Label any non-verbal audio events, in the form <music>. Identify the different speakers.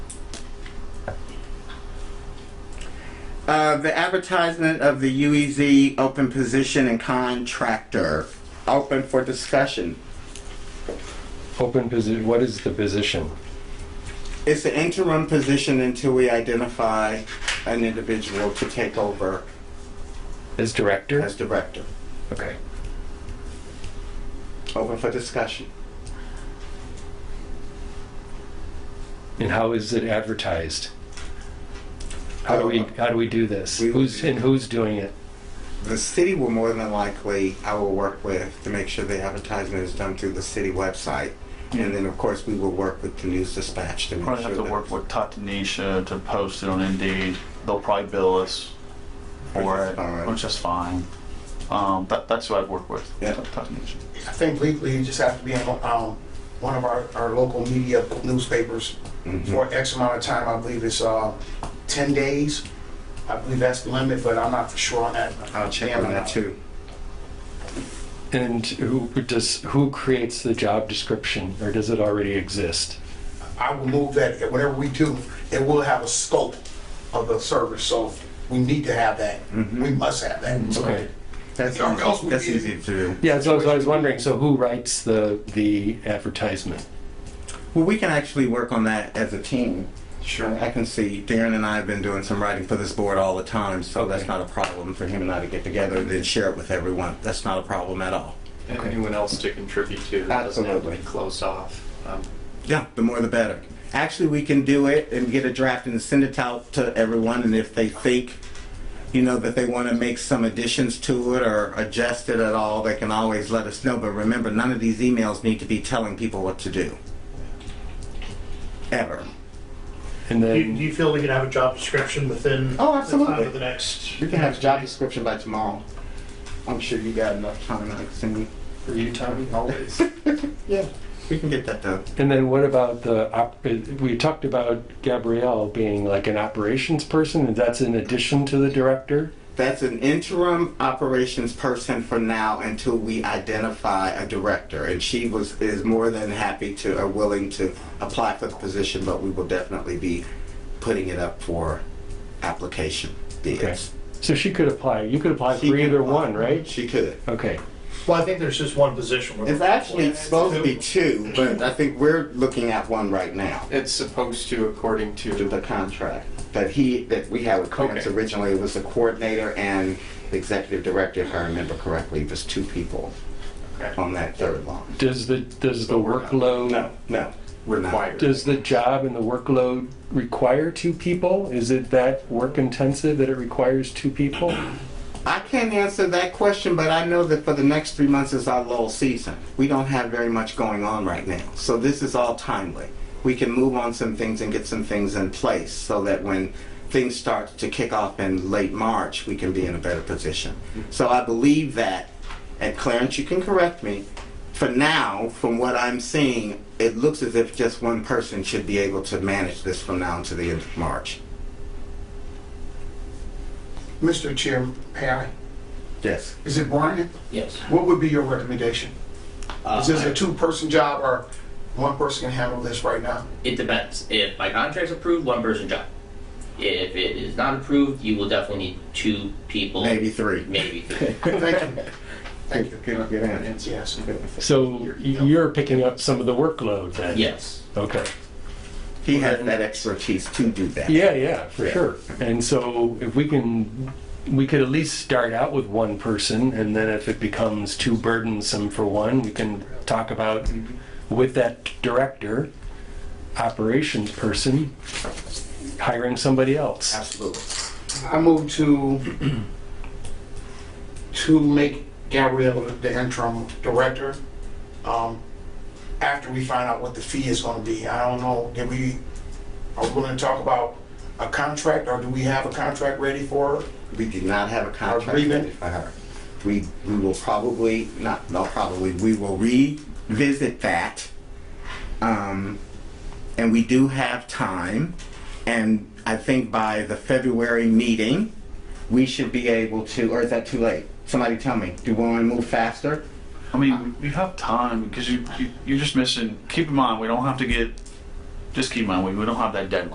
Speaker 1: Uh, the advertisement of the UEZ open position and contractor, open for discussion.
Speaker 2: Open position, what is the position?
Speaker 1: It's an interim position until we identify an individual to take over
Speaker 2: As director?
Speaker 1: as director.
Speaker 2: Okay.
Speaker 1: Open for discussion.
Speaker 2: And how is it advertised? How do we, how do we do this?
Speaker 1: We-
Speaker 2: Who's, and who's doing it?
Speaker 1: The city will more than likely, I will work with to make sure the advertisement is done through the city website. And then, of course, we will work with the news dispatch to make sure.
Speaker 3: Probably have to
Speaker 1: that-
Speaker 3: work with Tatanisha to post it on Indeed. They'll probably bill us for
Speaker 1: Which is fine.
Speaker 3: it, which is fine. Um, that, that's who I'd work with.
Speaker 1: Yeah.
Speaker 3: Tatanisha.
Speaker 4: I think legally you just have to be in um, one of our, our local media newspapers for X amount of time. I believe it's uh, 10 days. I believe that's the limit, but I'm not for sure on that.
Speaker 1: I'll check on that too.
Speaker 2: And who does, who creates the job description, or does it already exist?
Speaker 4: I will move that, whatever we do, it will have a scope of the service, so we need to have that. We must have that.
Speaker 2: Okay.
Speaker 1: That's,
Speaker 4: Or else we
Speaker 1: that's
Speaker 4: did.
Speaker 1: easy to do.
Speaker 2: Yeah, so I was- I was wondering, so who writes the, the advertisement?
Speaker 1: Well, we can actually work on that as a team.
Speaker 4: Sure.
Speaker 1: I can see Darren and I have been doing some writing for this board all the time, so that's not a problem for him and I to get together and then share it with everyone. That's not a problem at all.
Speaker 5: and anyone else to contribute to that doesn't have to be
Speaker 1: Absolutely.
Speaker 5: closed off. Um,
Speaker 1: Yeah, the more the better. Actually, we can do it and get a draft and send it out to everyone. And if they think, you know, that they want to make some additions to it or adjust it at all, they can always let us know. But remember, none of these emails need to be telling people what to do. Ever.
Speaker 2: And
Speaker 6: Do you, do
Speaker 2: then,
Speaker 6: you feel we could have a job description within?
Speaker 1: Oh,
Speaker 6: The
Speaker 1: absolutely.
Speaker 6: time of the next.
Speaker 1: We can have a job description by tomorrow. I'm sure you got enough time, Alexander.
Speaker 5: For you, Tommy, always.
Speaker 1: Yeah, we can get that done.
Speaker 2: and then what about the, op- uh, we talked about Gabrielle being like an operations person, and that's in addition to the director?
Speaker 1: That's an interim operations person for now until we identify a director. And she was, is more than happy to, or willing to apply for the position, but we will definitely be putting it up for application bids.
Speaker 2: So she could apply, you could apply for
Speaker 1: She could
Speaker 2: either
Speaker 1: apply.
Speaker 2: one, right?
Speaker 1: She could.
Speaker 2: Okay,
Speaker 6: Well, I think there's just one position. we're
Speaker 1: It's
Speaker 6: looking
Speaker 1: actually
Speaker 6: for.
Speaker 1: supposed to be two, but I think we're looking at one right now.
Speaker 5: It's supposed to according
Speaker 1: to the
Speaker 5: to,
Speaker 1: contract that he, that we had with Clarence
Speaker 5: Okay.
Speaker 1: originally, it was the coordinator and the executive director, if I remember correctly, it was two people
Speaker 5: okay,
Speaker 1: on that third line.
Speaker 2: does the, does the
Speaker 5: we're not.
Speaker 2: workload,
Speaker 1: No, no. we're not.
Speaker 5: required.
Speaker 2: does the job and the workload require two people? Is it that work intensive that it requires two people?
Speaker 1: I can't answer that question, but I know that for the next three months is our lull season. We don't have very much going on right now, so this is all timely. We can move on some things and get some things in place so that when things start to kick off in late March, we can be in a better position. So I believe that, and Clarence, you can correct me, for now, from what I'm seeing, it looks as if just one person should be able to manage this from now until the end of March.
Speaker 4: Mr. Chair, Perry,
Speaker 1: Yes.
Speaker 4: is it Brian?
Speaker 7: Yes.
Speaker 4: What would be your recommendation? Is this a two-person job or one person can handle this right now?
Speaker 7: It depends. If my contract's approved, one person job. If it is not approved, you will definitely need two people.
Speaker 1: Maybe three. <laughs>
Speaker 7: Maybe three.
Speaker 4: Thank you. Thank you.
Speaker 1: Good, good answer.
Speaker 5: It's-
Speaker 4: Yes.
Speaker 2: So you're picking up some of the workload then?
Speaker 7: yes.
Speaker 2: Okay.
Speaker 1: He has that expertise to do that.
Speaker 2: Yeah, yeah, for
Speaker 1: Yeah.
Speaker 2: sure. And so if we can, we could at least start out with one person, and then if it becomes too burdensome for one, we can talk about with that director, operations person, hiring somebody else.
Speaker 1: Absolutely.
Speaker 4: I move to, to make Gabrielle the interim director, um, after we find out what the fee is gonna be. I don't know, did we, are we gonna talk about a contract, or do we have a contract ready for her?
Speaker 1: We do not have a contract
Speaker 4: Agreement.
Speaker 1: ready for her. We, we will probably, not, no, probably, we will revisit that. Um, and we do have time. And I think by the February meeting, we should be able to, or is that too late? Somebody tell me, do we want to move faster?
Speaker 3: I mean, we have time because you, you, you're just missing, keep in mind, we don't have to get, just keep in mind, we, we don't have that deadline.